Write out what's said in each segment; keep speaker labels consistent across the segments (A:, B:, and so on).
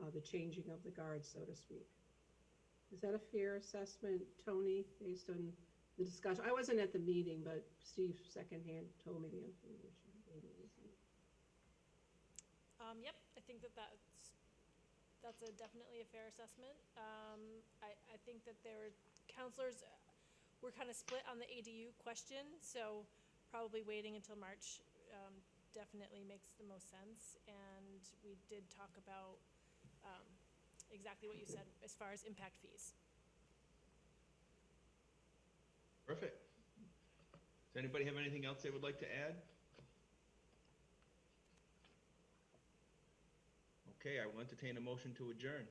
A: uh, the changing of the guard, so to speak. Is that a fair assessment, Tony, based on the discussion? I wasn't at the meeting, but Steve secondhand told me the information.
B: Um, yep, I think that that's, that's a definitely a fair assessment. Um, I, I think that there were, counselors uh, were kind of split on the ADU question, so probably waiting until March, um, definitely makes the most sense. And we did talk about, um, exactly what you said as far as impact fees.
C: Perfect. Does anybody have anything else they would like to add? Okay, I will entertain a motion to adjourn.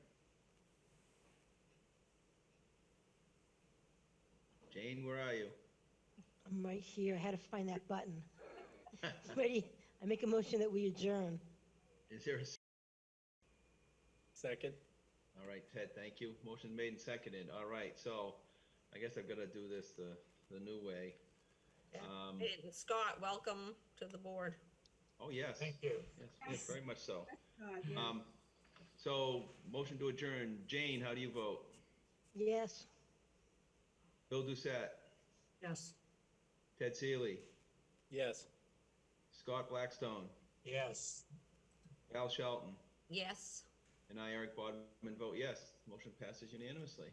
C: Jane, where are you?
D: I'm right here. I had to find that button. Ready? I make a motion that we adjourn.
C: Is there a, s-
E: Second.
C: all right, Ted, thank you. Motion made and seconded. All right, so I guess I've got to do this the, the new way. Um,
F: And Scott, welcome to the board.
C: oh, yes. Thank you. Yes, yes, very much so.
A: God, Uh, yeah.
C: Um, so motion to adjourn. Jane, how do you vote?
D: Yes.
C: Bill Doucette,
F: Yes.
C: Ted Seeley,
E: Yes.
C: Scott Blackstone,
G: Yes.
C: Al Shelton,
F: Yes.
C: and I, Eric Bodman, vote yes. Motion passes unanimously.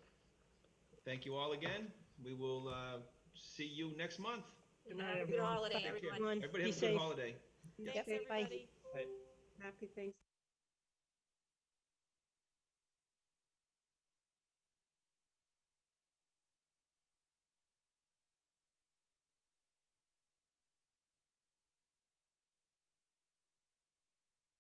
C: Thank you all again. We will uh, see you next month.
F: Uh, Good night, everyone. Good holiday,
C: Take care.
F: everyone.
D: Everyone,
C: Everybody
D: be
C: have a
D: safe.
C: good holiday.
D: Yep.
B: Thanks,
D: Bye.
B: everybody.
A: Happy Thanksgiving.